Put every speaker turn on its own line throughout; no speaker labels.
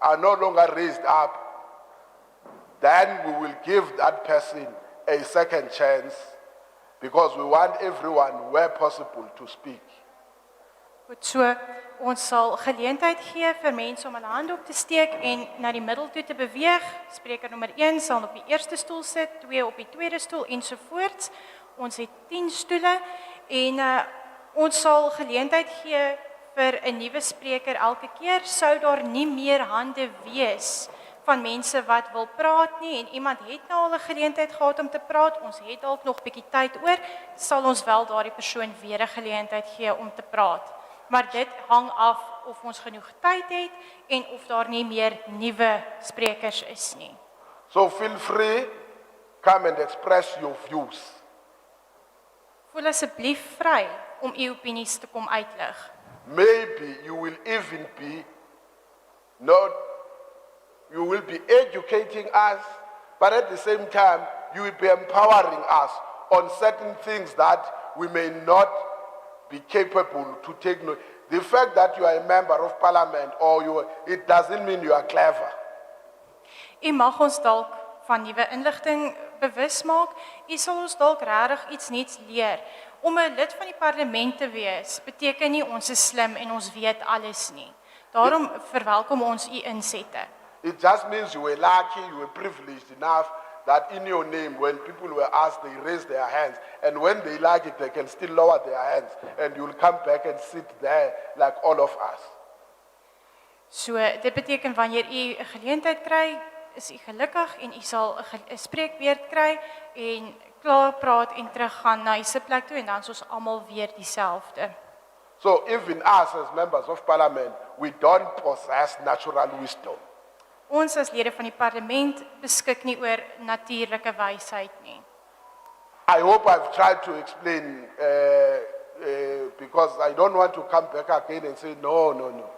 are no longer raised up, then we will give that person a second chance because we want everyone, where possible, to speak.
Goed so, ons sal geleentheid gee vir mense om hulle hand op te steek en na die middel toe te beweeg. Spreker nommer 1 sal op die eerste stoel sit, 2 op die tweede stoel ensovoorts. Ons het 10 stoele en uh, ons sal geleentheid gee vir 'n nuwe spreker elke keer sou daar nie meer hande wees van mense wat wil praat nie en iemand het nou al 'n geleentheid gehad om te praat. Ons het dalk nog bietjie tyd oor, sal ons wel daardie persoon weer 'n geleentheid gee om te praat. Maar dit hang af of ons genoeg tyd het en of daar nie meer nuwe sprekers is nie.
So feel free, come and express your views.
Voel asseblief vry om u opinies te kom uitlig.
Maybe you will even be not, you will be educating us, but at the same time, you will be empowering us on certain things that we may not be capable to take note. The fact that you are a member of parliament or you, are- it doesn't mean you are clever.
U mag ons dalk van nuwe inligting bewus maak. U sal ons dalk regtig iets nuuts leer. Om 'n lid van die parlement te wees beteken nie ons is slim en ons weet alles nie. Daarom verwelkom ons u insette.
It just means you were lucky, you were privileged enough that in your name, when people were asked, they raised their hands. And when they like it, they can still lower their hands. And you'll come back and sit there like all of us.
So dit beteken wanneer u 'n geleentheid kry, is u gelukkig en u sal 'n ge- 'n spreekbeurt kry en klaar praat en teruggaan na u se plek toe en dan is ons almal weer dieselfde.
So even us as members of parliament, we don't possess natural wisdom.
Ons as lede van die parlement beskik nie oor natuurlike wysheid nie.
I hope I've tried to explain uh, uh, because I don't want to come back again and say, no, no, no.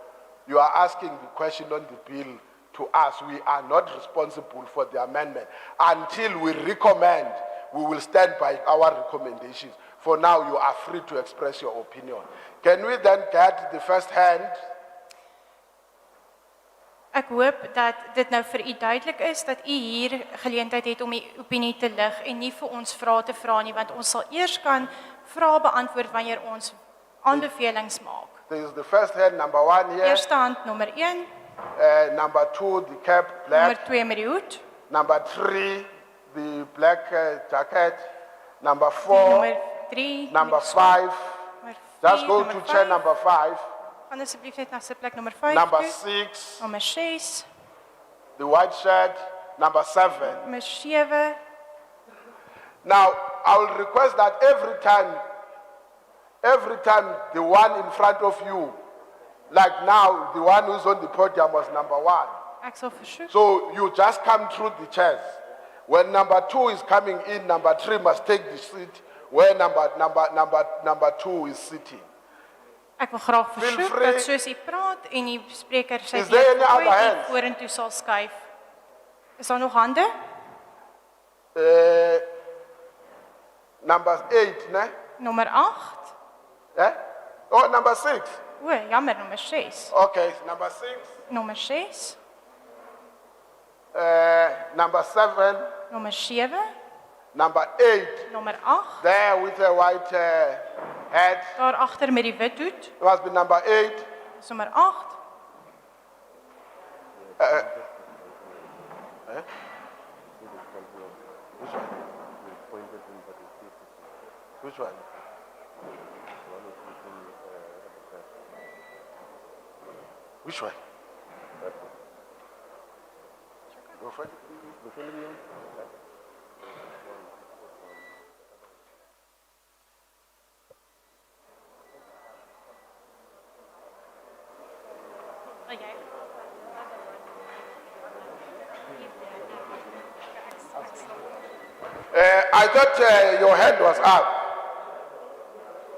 You are asking the question on the bill to us. We are not responsible for the amendment. Until we recommend, we will stand by our recommendations. For now, you are free to express your opinion. Can we then get the first hand?
Ek hoop dat dit nou vir u duidelik is dat u hier geleentheid het om u opinie te lig en nie vir ons vrae te vra nie want ons sal eers kan vrae beantwoord wanneer ons aanbevelings maak.
There is the first hand, number one here.
Eerste hand nommer 1,
Uh, number two, the cap black.
nommer 2 met die hoed,
Number three, the black uh, jacket. Number four.
nommer 3,
Number five, just go to chair number five.
Gaan asseblief net na sitplek nommer 5.
Number six,
nommer 6,
the white shirt. Number seven.
nommer 7
Now, I will request that every time, every time the one in front of you, like now, the one who's on the podium was number one.
Ek sal versoek.
So you just come through the chairs. When number two is coming in, number three must take the seat where number, number, number, number two is sitting.
Ek wil graag
Feel
versoek
free.
dat soos u praat en die spreker sy
Is there any
deurgooi
other
en
hands?
vorentoe sal skuif. Is daar nog hande?
Uh, number eight, ne?
Nommer 8.
Eh? Oh, number six.
O, jammer, nommer 6.
Okay, number six,
Nommer 6,
uh, number seven,
nommer 7,
number eight.
nommer 8.
There with a white uh, hat.
Daar agter met die wit hoed,
It must be number eight.
is nommer 8.
Which one? Which one? Which one? Go for it. Uh, I thought uh, your hand was up.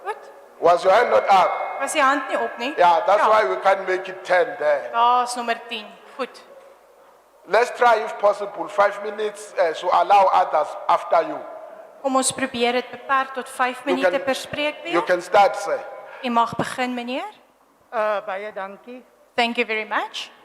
Goed.
Was your hand not up?
Was die hand nie op nie?
Yeah, that's why we can't make it 10 there.
Daar's nommer 10. Goed.
Let's try, if possible, five minutes uh, to allow others after you.
Kom ons probeer dit beperk tot 5
You
minute
can-
per spreekbeurt.
You can start, sir.
U mag begin, meneer.
Uh, baie dankie.
Thank you very much.